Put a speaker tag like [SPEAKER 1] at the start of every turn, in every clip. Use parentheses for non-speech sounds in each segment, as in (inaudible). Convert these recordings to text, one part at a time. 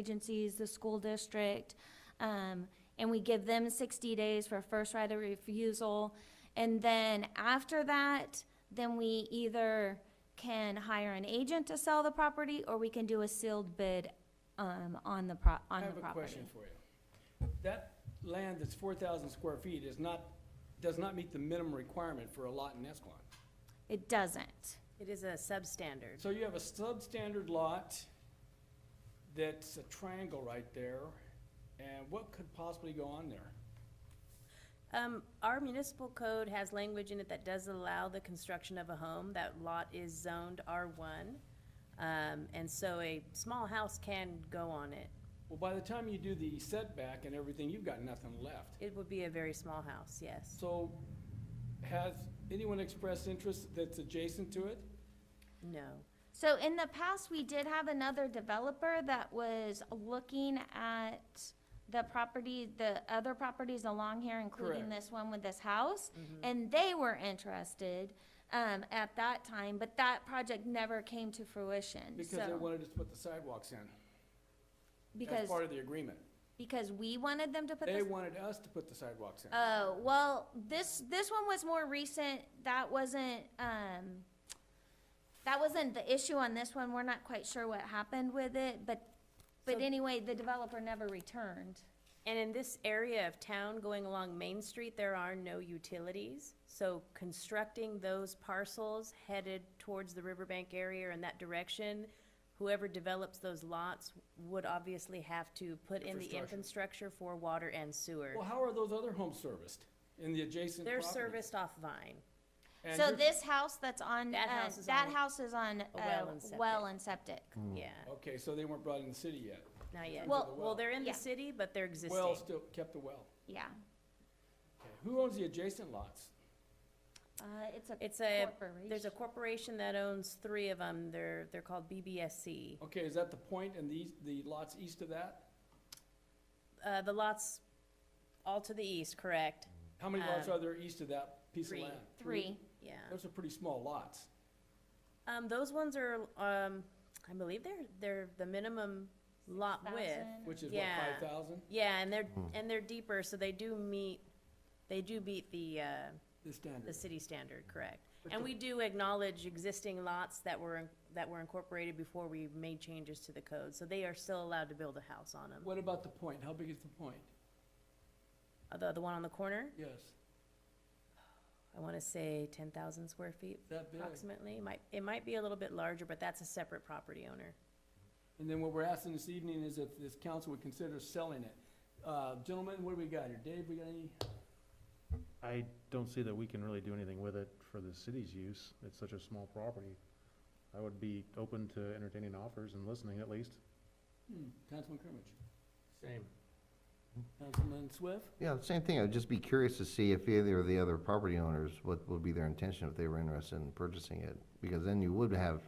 [SPEAKER 1] agencies, the school district, um, and we give them sixty days for first right of refusal. And then after that, then we either can hire an agent to sell the property, or we can do a sealed bid, um, on the pro, on the property.
[SPEAKER 2] I have a question for you. That land that's four thousand square feet is not, does not meet the minimum requirement for a lot in Escalon.
[SPEAKER 1] It doesn't.
[SPEAKER 3] It is a substandard.
[SPEAKER 2] So you have a substandard lot that's a triangle right there, and what could possibly go on there?
[SPEAKER 3] Um, our municipal code has language in it that does allow the construction of a home. That lot is zoned R one. Um, and so a small house can go on it.
[SPEAKER 2] Well, by the time you do the setback and everything, you've got nothing left.
[SPEAKER 3] It would be a very small house, yes.
[SPEAKER 2] So has anyone expressed interest that's adjacent to it?
[SPEAKER 3] No.
[SPEAKER 1] So in the past, we did have another developer that was looking at the property, the other properties along here, including
[SPEAKER 2] Correct. Mm-hmm.
[SPEAKER 1] this one with this house. And they were interested, um, at that time, but that project never came to fruition,
[SPEAKER 2] Because they
[SPEAKER 1] so.
[SPEAKER 2] wanted us to put the sidewalks in. As
[SPEAKER 1] Because,
[SPEAKER 2] part of the agreement.
[SPEAKER 1] because we wanted them to put
[SPEAKER 2] They
[SPEAKER 1] this.
[SPEAKER 2] wanted us to put the sidewalks in.
[SPEAKER 1] Oh, well, this, this one was more recent. That wasn't, um, that wasn't the issue on this one. We're not quite sure what happened with it, but, but
[SPEAKER 3] So-
[SPEAKER 1] anyway, the developer never returned.
[SPEAKER 3] And in this area of town going along Main Street, there are no utilities. So constructing those parcels headed towards the riverbank area or in that direction, whoever develops those lots would obviously have to put in the
[SPEAKER 2] Infrastructure.
[SPEAKER 3] infrastructure for water and sewer.
[SPEAKER 2] Well, how are those other homes serviced in the adjacent
[SPEAKER 3] They're
[SPEAKER 2] properties?
[SPEAKER 3] serviced off Vine.
[SPEAKER 2] And
[SPEAKER 1] So
[SPEAKER 2] you're-
[SPEAKER 1] this house that's on,
[SPEAKER 3] That
[SPEAKER 1] uh,
[SPEAKER 3] house is
[SPEAKER 1] that
[SPEAKER 3] on
[SPEAKER 1] house is on,
[SPEAKER 3] a
[SPEAKER 1] uh,
[SPEAKER 3] well and septic.
[SPEAKER 1] well and septic.
[SPEAKER 2] Hmm.
[SPEAKER 3] Yeah,
[SPEAKER 2] Okay, so they weren't brought in the city yet.
[SPEAKER 3] not yet.
[SPEAKER 1] Well-
[SPEAKER 3] Well, they're in
[SPEAKER 1] yeah.
[SPEAKER 3] the city, but they're existing.
[SPEAKER 2] Well, still kept the well.
[SPEAKER 1] Yeah,
[SPEAKER 2] Okay, Who owns the adjacent lots?
[SPEAKER 1] uh, it's a
[SPEAKER 3] It's a, there's a
[SPEAKER 1] corporation.
[SPEAKER 3] corporation that owns three of them. They're, they're called BBSC.
[SPEAKER 2] Okay, is that the point and the, the lots east of that?
[SPEAKER 3] Uh, the lots all to the east, correct?
[SPEAKER 2] How many lots
[SPEAKER 3] Um,
[SPEAKER 2] are there east of that piece of
[SPEAKER 3] three. Uh-huh.
[SPEAKER 2] land?
[SPEAKER 1] Three,
[SPEAKER 3] Yeah.
[SPEAKER 2] Those are pretty small lots.
[SPEAKER 3] Um, those ones are, um, I believe they're, they're the minimum lot width.
[SPEAKER 1] thousand.
[SPEAKER 2] Which is what,
[SPEAKER 3] Yeah.
[SPEAKER 2] five thousand?
[SPEAKER 3] Yeah, and they're, and they're deeper, so they do meet, they do meet the, uh,
[SPEAKER 2] The
[SPEAKER 3] the
[SPEAKER 2] standard.
[SPEAKER 3] city standard, correct?
[SPEAKER 2] But
[SPEAKER 3] And
[SPEAKER 2] the-
[SPEAKER 3] we do acknowledge existing lots that were, in- that were incorporated before we made changes to the code, so they are still allowed to build a house on them.
[SPEAKER 2] What about the point? How big is the point?
[SPEAKER 3] Uh, The, the one on the corner,
[SPEAKER 2] Yes,
[SPEAKER 3] I wanna say ten thousand square feet
[SPEAKER 2] that big.
[SPEAKER 3] approximately, might, it might be a little bit larger, but that's a separate property owner.
[SPEAKER 2] And then what we're asking this evening is if this council would consider selling it. Uh, gentlemen, what do we got here? Dave, we got any?
[SPEAKER 4] I don't see that we can really do anything with it for the city's use. It's such a small property. I would be open to entertaining offers and listening at least.
[SPEAKER 2] Hmm, Councilman Crimmage?
[SPEAKER 5] Same.
[SPEAKER 2] Councilman Swift?
[SPEAKER 6] Yeah, same thing. I'd just be curious to see if either of the other property owners, what would be their intention if they were interested in purchasing it? Because then you would have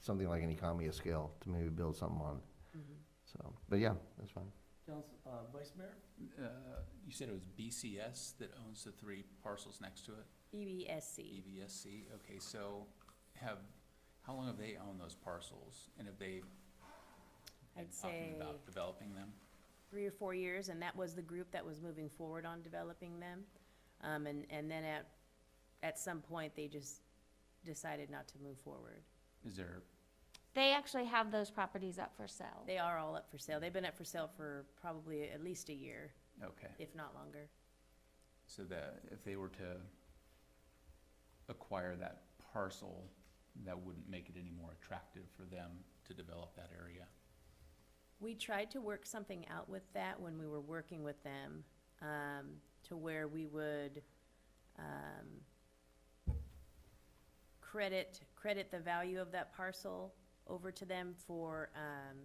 [SPEAKER 6] something like an economy of scale to maybe build something on.
[SPEAKER 2] Mm-hmm.
[SPEAKER 6] So, but yeah, that's fine.
[SPEAKER 2] Council, uh, Vice Mayor?
[SPEAKER 7] Uh, You said it was BCS that owns the three parcels next to it?
[SPEAKER 3] E
[SPEAKER 7] E
[SPEAKER 3] EBSC,
[SPEAKER 7] EVSC, okay, so have, how long have they owned those parcels? And have they been
[SPEAKER 3] I'd
[SPEAKER 7] talking
[SPEAKER 3] say
[SPEAKER 7] about developing them?
[SPEAKER 3] three or four years, and that was the group that was moving forward on developing them. Um, and, and then at, at some point, they just decided not to move forward.
[SPEAKER 7] Is there,
[SPEAKER 1] They actually have those properties up for sale.
[SPEAKER 3] They are all up for sale. They've been up for sale for probably at least a year,
[SPEAKER 7] okay,
[SPEAKER 3] if not longer.
[SPEAKER 7] so that if they were to acquire that parcel, that wouldn't make it any more attractive for them to develop that area?
[SPEAKER 3] We tried to work something out with that when we were working with them, um, to where we would, um, credit, credit the value of that parcel over to them for, um,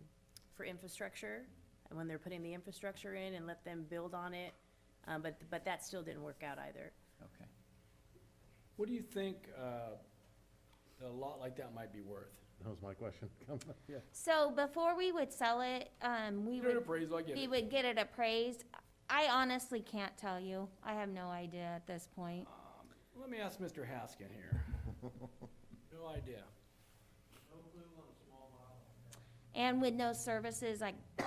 [SPEAKER 3] for infrastructure. And when they're putting the infrastructure in and let them build on it, um, but, but that still didn't work out either.
[SPEAKER 7] Okay.
[SPEAKER 2] What do you think, uh, a lot like that might be worth?
[SPEAKER 4] That was my question. (laughs)
[SPEAKER 1] So before we would sell it, um, we
[SPEAKER 2] You an
[SPEAKER 1] would,
[SPEAKER 2] appraisal, I get
[SPEAKER 1] we
[SPEAKER 2] it.
[SPEAKER 1] would get it appraised. I honestly can't tell you. I have no idea at this point.
[SPEAKER 2] Let me ask Mr. Haskin
[SPEAKER 1] (laughs)
[SPEAKER 2] here. No idea.
[SPEAKER 1] And with no services, like